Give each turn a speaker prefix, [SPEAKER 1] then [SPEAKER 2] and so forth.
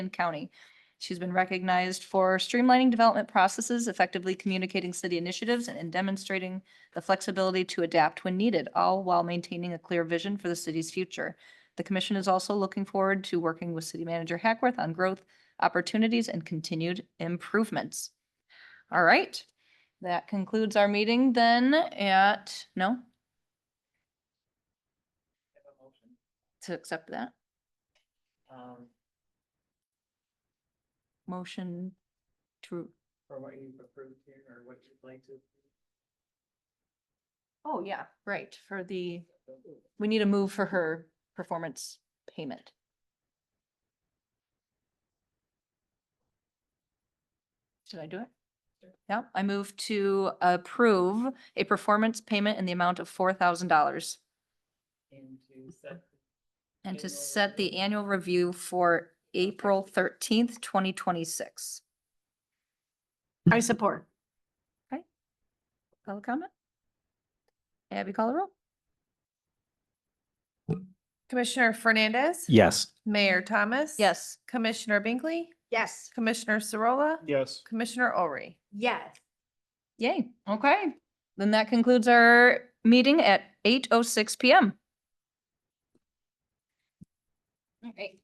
[SPEAKER 1] County. She's been recognized for streamlining development processes, effectively communicating city initiatives, and demonstrating the flexibility to adapt when needed, all while maintaining a clear vision for the city's future. The commission is also looking forward to working with City Manager Hackworth on growth opportunities and continued improvements. All right, that concludes our meeting then at, no?
[SPEAKER 2] have a motion.
[SPEAKER 1] To accept that
[SPEAKER 2] Um,
[SPEAKER 1] motion to,
[SPEAKER 2] for what you've approved here or what you'd like to.
[SPEAKER 1] oh, yeah, right, for the, we need a move for her performance payment. Should I do it? Yeah, I move to approve a performance payment in the amount of four thousand dollars
[SPEAKER 2] And to set.
[SPEAKER 1] and to
[SPEAKER 2] Annual
[SPEAKER 1] set the
[SPEAKER 2] review.
[SPEAKER 1] annual review for April thirteenth, twenty twenty-six.
[SPEAKER 3] I support.
[SPEAKER 1] Call a comment? Abby, call the roll?
[SPEAKER 4] Commissioner Fernandez?
[SPEAKER 5] Yes.
[SPEAKER 4] Mayor Thomas?
[SPEAKER 1] Yes.
[SPEAKER 4] Commissioner Binkley?
[SPEAKER 3] Yes.
[SPEAKER 4] Commissioner Sarola?
[SPEAKER 5] Yes.
[SPEAKER 4] Commissioner Ori?
[SPEAKER 3] Yes.
[SPEAKER 1] Yay, okay. Then that concludes our meeting at eight oh six PM. All right,